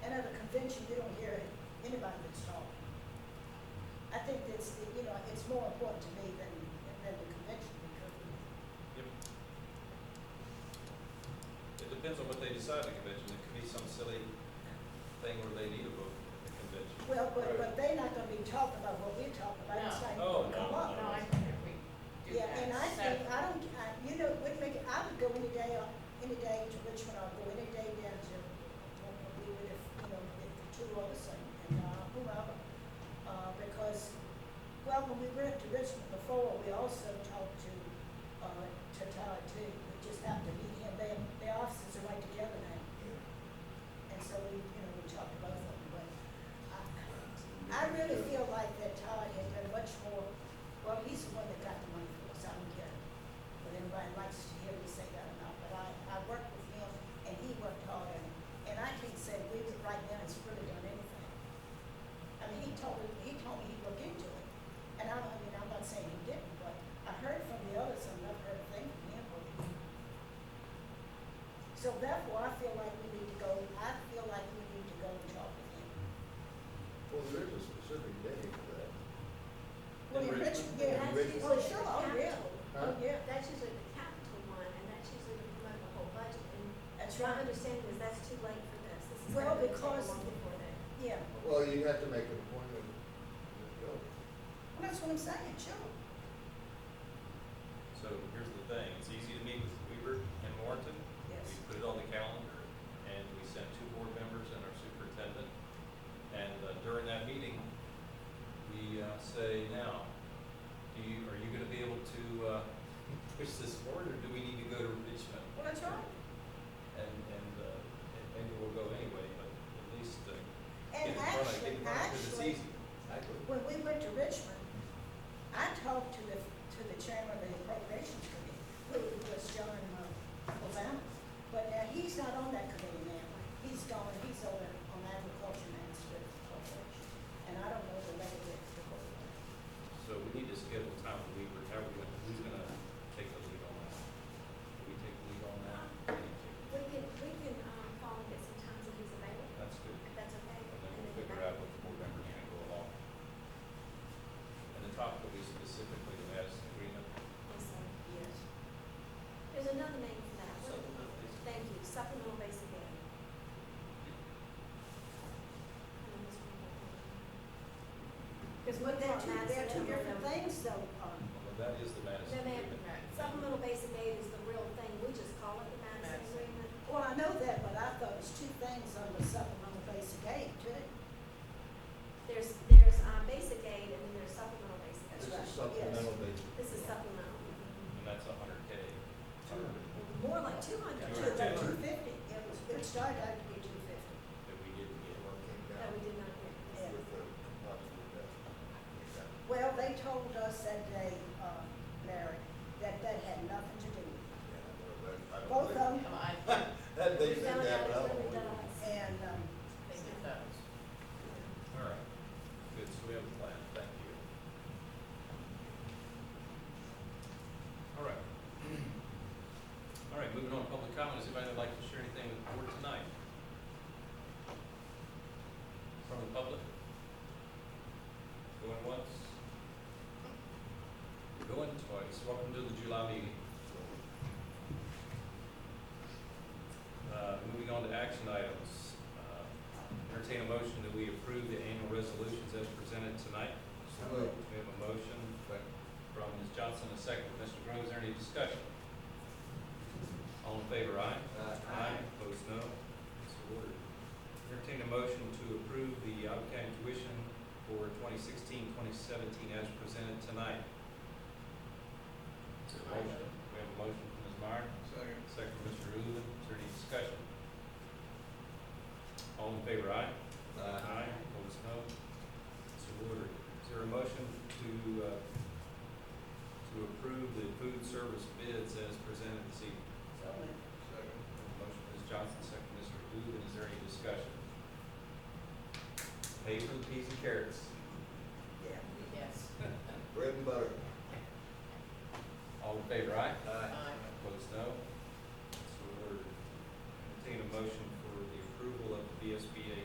more important to me than, than the convention because Yep. It depends on what they decide at convention. It could be some silly thing where they need a vote at the convention. Well, but, but they're not gonna be talking about what we're talking about, it's No. not Oh, gonna no, come up. No, I think if we do Yeah, that. and I think, separate- I don't, I, you know, would make, it- I would go any day, on- any day to Richmond, I'll go any day down to, what we would if, you know, if the two of us and, and, uh, whoever. Uh, because, well, when we went to Richmond before, we also talked to, uh, to Todd too, we just happened to meet him, they, their offices are right together now. And so we, you know, we talked about them, but I, I really feel like that Todd has been much more, well, he's the one that got the money for us, I don't care. But everybody likes to hear me say that or not, but I, I worked with him and he worked hard and, and I can't say we, right now, has really done anything. I mean, he told, me- he told me he looked into it. And I, I mean, I'm not saying he didn't, but I heard from the others, I've never heard a thing from him. really. So therefore, I feel like we need to go, I feel like we need to go and talk with him. Well, there is a specific day for that. Well, in In Richmond. Richmond, yeah, In Richmond, Richmond. oh, sure, oh, yeah, oh, Huh? yeah, That's usually the capital one, and that's usually to promote the whole budget, and that's my right, understanding is that's too late for this. This is Well, gonna take a because- long time for that. yeah, Well, you have to make an appointment. to go. well, that's what I'm saying, sure. So here's the thing, it's easy to meet with Weaver and Warrenton. Yes. We put it on the calendar and we sent two board members and our superintendent. And uh, during that meeting, we uh, say, now, do you, are you gonna be able to uh, push this forward or do we need to go to Richmond? Well, that's right. And, and, uh, and maybe we'll go anyway, but at least uh, And get in front of, get actually, in front of, because it's actually, easy. Exactly. when we went to Richmond, I talked to the, to the chairman of the appropriations committee, who was John uh, Obama. But now, he's not on that committee now, he's gone, he's over on agriculture and agriculture corporation, and I don't know the level of the corporation. So we need to schedule time with Weaver, how are we gonna, who's gonna take the lead on that? Do we take the lead on that? We can, we can, um, call and get some times if he's available, That's good. if that's okay. And then and we'll then figure out what the board members are gonna go along. And the topic will be specifically the Madison agreement. Yes, sir. Yes. There's another name for that. What- Supplemental basic. Thank you, supplemental basic ed. Because But what they're that two, they're two different things though, um, Well, that is the Madison No, ma'am. agreement. Supplemental basic aid is the real thing, we just call it the Madison Madison. Agreement. Well, I know that, but I thought it was two things on the supplemental basic aid too. There's, there's, um, basic aid and then there's supplemental basic This aid. right, is supplemental basis. This is supplemental, And that's a hundred K. more like two hundred. Two, like two fifty, it was, it started out to be two fifty. That we didn't get. Well, it came No, down we with did not get the, this. Yeah. possible that. Exactly. Well, they told us that day, uh, Larry, that that had nothing to do with it. Yeah, I don't Both of believe- them, Well, I think That they We said found that, but I don't out it believe really it. does. and, um, it does. All right. Good, so we have a plan, thank you. All right. All right, moving on, to public comments, anybody would like to share anything with the board tonight? From the public? Going once? Going twice, welcome to the July meeting. Uh, moving on to action items. Uh, Entertain a motion that we approve the annual resolutions as presented tonight. So moved. We have a motion from Ms. Johnson, a second from Mr. Grove. Is there any discussion? All in favor, aye? Uh, Opposed, no? So ordered. Entertain a motion to approve the Alva County tuition for 2016, 2017 as presented tonight. Is there a motion? We have a motion from Ms. Meyer. Second. Second from Mr. Uven, is there any discussion? All in favor, aye? Uh, Opposed, no? So ordered. Is there a motion to, uh, to approve the food service bids as presented this evening? so, uh, second. Motion, Ms. Johnson, second, Mr. Uven, is there any discussion? Pay for the peas and carrots. yeah. Yes. Bread and butter. Uh, All in favor, aye? Aye.